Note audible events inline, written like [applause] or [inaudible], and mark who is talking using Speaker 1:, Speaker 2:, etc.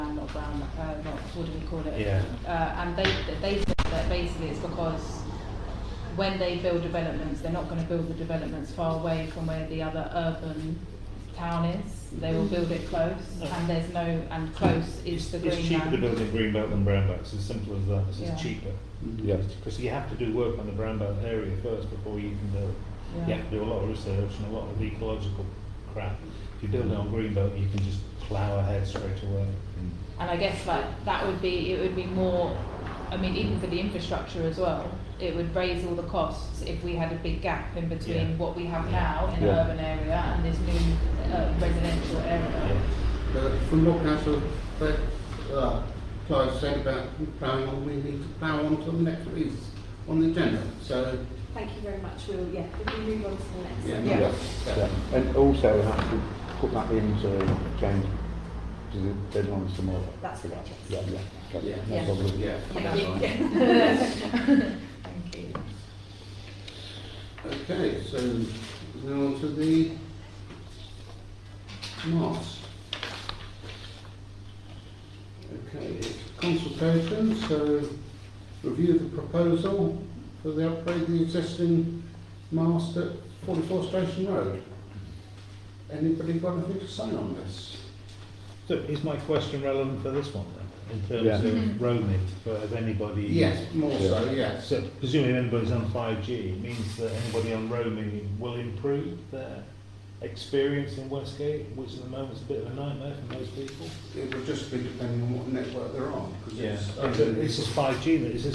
Speaker 1: brown, uh, not, what do we call it?
Speaker 2: Yeah.
Speaker 1: Uh, and they, they said that basically it's because when they build developments, they're not gonna build the developments far away from where the other urban town is. They will build it close, and there's no, and close is the green
Speaker 2: It's cheaper to
Speaker 1: land.
Speaker 2: build a green belt than brown belt, it's as simple as that, it's
Speaker 1: Yeah.
Speaker 2: just cheaper.
Speaker 3: Yeah.
Speaker 2: Because you have to do work on the brown belt area first before you can build. You have to do a lot of research and a lot of ecological crap. If you build it on green belt, you can just plough ahead straight away.
Speaker 1: And I guess like that would be it would be more I mean even for the infrastructure as well, it would raise all the costs if we had a big gap in between
Speaker 2: Yeah.
Speaker 1: what we have now in
Speaker 3: Yeah.
Speaker 1: an urban area and this new uh, residential area.
Speaker 2: Yeah.
Speaker 4: Uh, From what council, that, uh, Clive said about ploughing on, we need to plough on to the next piece on the agenda, so,
Speaker 5: Thank you very much. We'll, yeah, if we move on to the next.
Speaker 4: yeah.
Speaker 5: one.
Speaker 4: no,
Speaker 3: Yeah,
Speaker 4: that's-
Speaker 3: yeah. And also we have to put that into change to the deadline some more.
Speaker 5: That's it,
Speaker 3: Yeah,
Speaker 5: yes.
Speaker 3: yeah. that's-
Speaker 4: Yeah.
Speaker 3: No problem.
Speaker 4: Yeah.
Speaker 5: Thank you.
Speaker 1: [laughs] Thank you.
Speaker 4: Okay, so now on to the Mars. Okay, it's consultation, so review the proposal for the upgrade of the existing mast at 44 Station Road. Anybody got anything to say on this?
Speaker 2: So is my question relevant for this one then, in terms
Speaker 3: Yeah.
Speaker 2: of roaming, for if anybody?
Speaker 4: Yes, more so, yes.
Speaker 2: So presumably if anybody's on five G, it means that anybody on roaming will improve their experience in Westgate, which at the moment is a bit of a nightmare for most people.
Speaker 4: It would just be depending on what network they're on, because it's...
Speaker 2: It's just five G that is